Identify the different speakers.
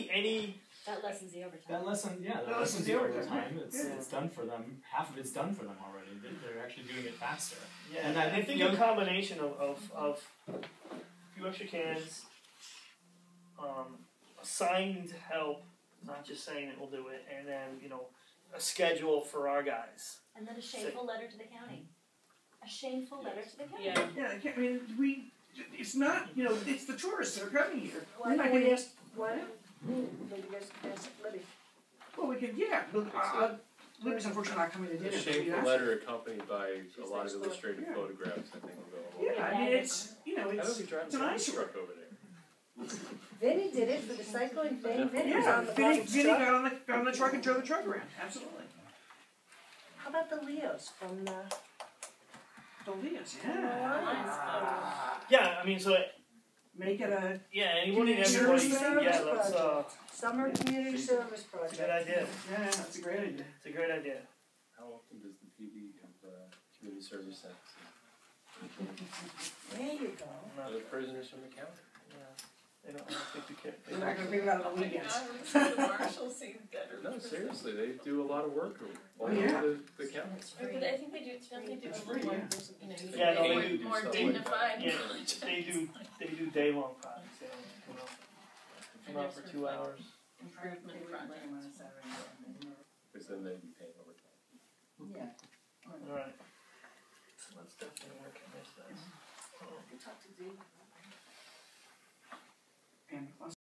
Speaker 1: any
Speaker 2: That lessens the overtime.
Speaker 3: That lesson, yeah, that,
Speaker 1: That lessens
Speaker 3: lessens the
Speaker 1: the
Speaker 3: overtime.
Speaker 1: overtime.
Speaker 3: It's,
Speaker 1: Yeah.
Speaker 3: it's done for them. Half of it's done for them already. They're, they're actually doing it faster.
Speaker 1: Yeah,
Speaker 3: And
Speaker 1: and
Speaker 3: I-
Speaker 1: I think
Speaker 3: you know-
Speaker 1: a combination of, of, of a few extra cans, um, assigned help, not just saying that we'll do it, and then, you know, a schedule for our guys.
Speaker 2: And then a shameful letter to the county. A shameful letter to the county.
Speaker 4: Yeah.
Speaker 5: Yeah, I can't, I mean, we, it's not, you know, it's the tourists that are coming here.
Speaker 6: Why
Speaker 5: We're not
Speaker 6: don't we
Speaker 5: gonna,
Speaker 6: ask, why don't, maybe that's, that's Libby.
Speaker 5: well, we could, yeah, look, uh, uh, Libby's unfortunately not coming to
Speaker 7: A
Speaker 5: dinner. but we
Speaker 7: shameful
Speaker 5: asked-
Speaker 7: letter accompanied by a lot of
Speaker 6: Yeah.
Speaker 7: illustrated photographs, I think will go a long
Speaker 5: Yeah, I mean, it's, you know,
Speaker 7: way. I don't
Speaker 5: it's,
Speaker 7: think driving
Speaker 5: it's an
Speaker 7: a
Speaker 5: eyesore.
Speaker 7: truck over there.
Speaker 6: Vinny did it for the cycling thing, Vinny was
Speaker 5: yeah,
Speaker 6: on the
Speaker 5: Vinny,
Speaker 6: bottom
Speaker 5: Vinny
Speaker 6: truck.
Speaker 5: got on the, got on the truck and drove the truck around, absolutely.
Speaker 6: How about the Leos from, uh,
Speaker 5: The Leos, yeah.
Speaker 6: Lions.
Speaker 1: Yeah, I mean, so,
Speaker 5: Ah. Make it a,
Speaker 1: yeah, anyone and
Speaker 5: Community
Speaker 1: everybody,
Speaker 6: service
Speaker 1: yeah, let's, uh,
Speaker 6: Summer Community Service
Speaker 1: it's a good
Speaker 6: Project?
Speaker 1: idea.
Speaker 5: yeah, that's a great idea.
Speaker 1: It's a great idea.
Speaker 7: How often does the PD have, uh, community service acts?
Speaker 6: There you go.
Speaker 1: No,
Speaker 7: Are the prisoners from the county?
Speaker 1: they don't, I don't think we care. They
Speaker 5: We're not
Speaker 1: don't-
Speaker 5: gonna figure out on the weekends.
Speaker 4: the Marshall scene better.
Speaker 7: No, seriously, they do a lot of work all
Speaker 5: Oh, yeah.
Speaker 7: over the, the county.
Speaker 4: But I think they do, don't they do a little more, you know, you
Speaker 1: Yeah, no,
Speaker 4: make
Speaker 1: they
Speaker 4: it
Speaker 1: do
Speaker 4: more
Speaker 7: stuff like
Speaker 4: dignified.
Speaker 7: that.
Speaker 1: Yeah, they do, they do day-long projects, they don't come up, come up for two hours.
Speaker 4: Improvement project.
Speaker 7: Cause then they'd be paying overtime.
Speaker 1: Alright. So let's definitely work on this then.
Speaker 5: And